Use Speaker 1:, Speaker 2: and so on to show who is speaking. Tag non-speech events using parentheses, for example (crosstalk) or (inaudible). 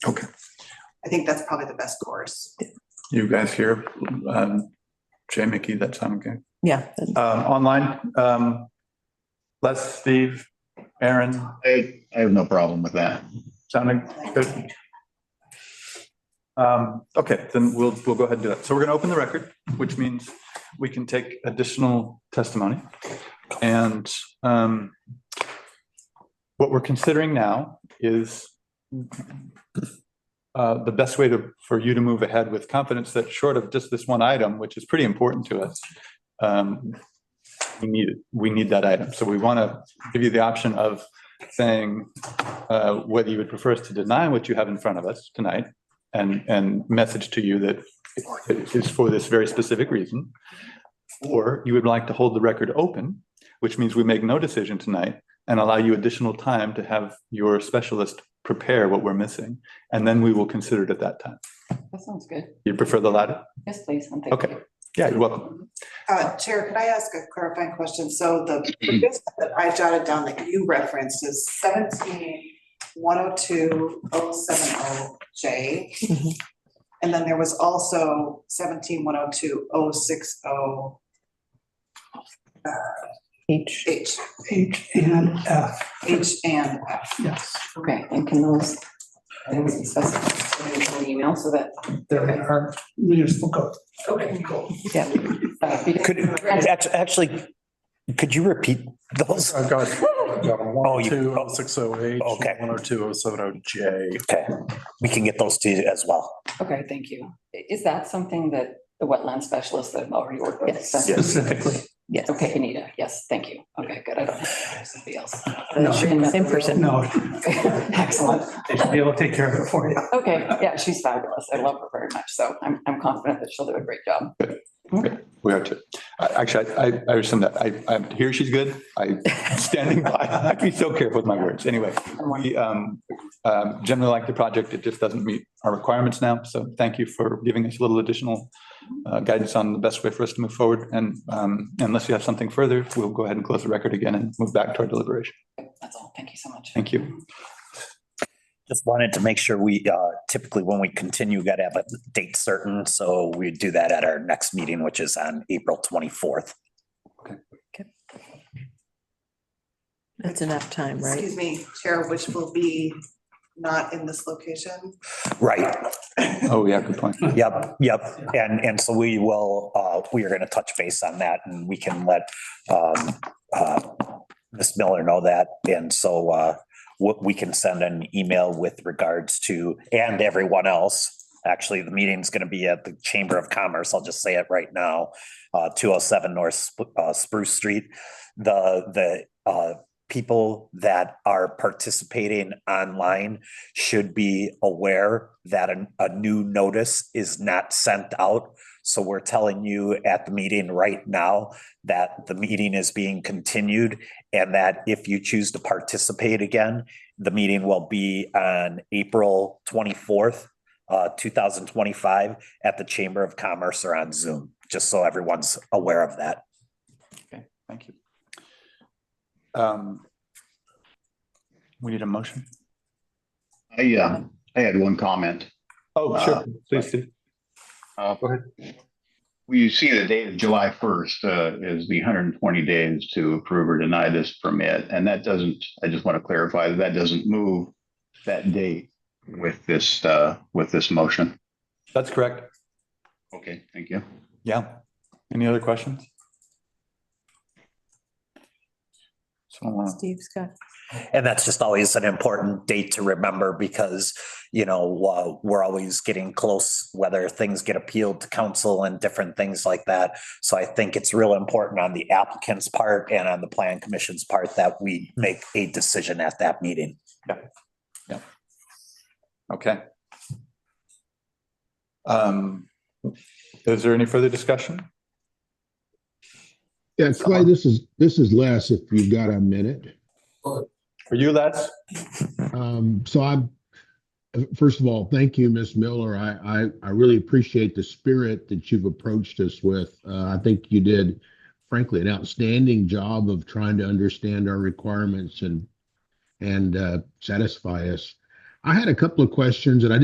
Speaker 1: I think that's probably the best course.
Speaker 2: You guys here, um, Jay Mickey, that sound okay?
Speaker 3: Yeah.
Speaker 2: Um, online, um, Les, Steve, Aaron,
Speaker 4: I, I have no problem with that.
Speaker 2: sounding good? Um, okay, then we'll, we'll go ahead and do that. So we're gonna open the record, which means we can take additional testimony. And, um, what we're considering now is uh, the best way to, for you to move ahead with confidence that short of just this one item, which is pretty important to us, um, we need, we need that item. So we want to give you the option of saying uh, whether you would prefer us to deny what you have in front of us tonight and, and message to you that it is for this very specific reason. Or you would like to hold the record open, which means we make no decision tonight and allow you additional time to have your specialist prepare what we're missing. And then we will consider it at that time.
Speaker 5: That sounds good.
Speaker 2: You prefer the latter?
Speaker 5: Yes, please. and thank
Speaker 2: Okay.
Speaker 5: you.
Speaker 2: Yeah, you're welcome.
Speaker 1: Uh, Chair, could I ask a clarifying question? So the business that I jotted down that you referenced is seventeen one oh two oh seven oh J.
Speaker 3: Mhm.
Speaker 1: And then there was also seventeen one oh two oh six oh
Speaker 3: H.
Speaker 1: H,
Speaker 6: H and F,
Speaker 1: H and F.
Speaker 6: yes.
Speaker 5: Okay, and can those, I was discussing an email so that.
Speaker 6: They're in our municipal code.
Speaker 5: Okay, cool.
Speaker 3: Yeah.
Speaker 7: Could, act- actually, could you repeat those?
Speaker 6: I've got, I've got
Speaker 7: Oh,
Speaker 6: one,
Speaker 7: you-
Speaker 6: two, oh, six, oh, eight,
Speaker 7: Okay.
Speaker 6: one, oh, two, oh, seven, oh, J.
Speaker 7: Okay, we can get those to you as well.
Speaker 5: Okay, thank you. I- Is that something that the wetland specialists that have already worked with?
Speaker 3: Yes.
Speaker 5: That's-
Speaker 6: Specifically.
Speaker 3: Yes.
Speaker 5: Okay, Anita, yes, thank you. Okay, good. I don't have somebody else.
Speaker 6: No.
Speaker 3: Same person.
Speaker 6: No,
Speaker 5: (laughs) Excellent.
Speaker 6: they should be able to take care of it for you.
Speaker 5: Okay, yeah, she's fabulous. I love her very much. So I'm, I'm confident that she'll do a great job.
Speaker 2: We are too. I- Actually, I, I- I rescind that. I, I'm here. She's good. I, standing by. (laughs) I'd be so careful with my words. Anyway,
Speaker 5: I'm wondering-
Speaker 2: we um, um, generally like the project. It just doesn't meet our requirements now. So thank you for giving us a little additional uh, guidance on the best way for us to move forward. And um, unless you have something further, we'll go ahead and close the record again and move back to our deliberation.
Speaker 5: That's all. Thank you so much.
Speaker 2: Thank you.
Speaker 7: Just wanted to make sure we, uh, typically when we continue, got to have a date certain. So we do that at our next meeting, which is on April 24th.
Speaker 3: That's enough time, right?
Speaker 1: Excuse me, Chair, which will be not in this location.
Speaker 7: Right,
Speaker 2: Oh, yeah, good point.
Speaker 7: Yep, yep. And, and so we will, uh, we are going to touch base on that and we can let, um, uh, Ms. Miller know that. And so, uh, what we can send an email with regards to, and everyone else. Actually, the meeting's going to be at the Chamber of Commerce. I'll just say it right now. Uh, two oh seven North Sp- uh, Spruce Street. The, the, uh, people that are participating online should be aware that a, a new notice is not sent out. So we're telling you at the meeting right now that the meeting is being continued and that if you choose to participate again, the meeting will be on April twenty-fourth, uh, two thousand twenty-five at the Chamber of Commerce or on Zoom, just so everyone's aware of that.
Speaker 2: Okay, thank you. Um, We need a motion?
Speaker 4: I, uh, I had one comment.
Speaker 2: Oh,
Speaker 4: sure.
Speaker 2: Please do.
Speaker 4: Uh,
Speaker 2: Go ahead.
Speaker 4: We see the date of July first, uh, is the hundred and twenty days to approve or deny this permit, and that doesn't, I just want to clarify that that doesn't move that date with this, uh, with this motion.
Speaker 2: That's correct.
Speaker 4: Okay, thank you.
Speaker 2: Yeah. Any other questions? Someone want to,
Speaker 3: Steve's got.
Speaker 7: And that's just always an important date to remember because, you know, uh, we're always getting close, whether things get appealed to council and different things like that. So I think it's real important on the applicant's part and on the plan commission's part that we make a decision at that meeting.
Speaker 2: okay. Um, is there any further discussion?
Speaker 8: Yeah, Clay, this is, this is Les, if you've got a minute.
Speaker 2: For you, Les?
Speaker 8: Um, so I'm, first of all, thank you, Ms. Miller. I, I, I really appreciate the spirit that you've approached us with. Uh, I think you did frankly an outstanding job of trying to understand our requirements and, and, uh, satisfy us. I had a couple of questions and I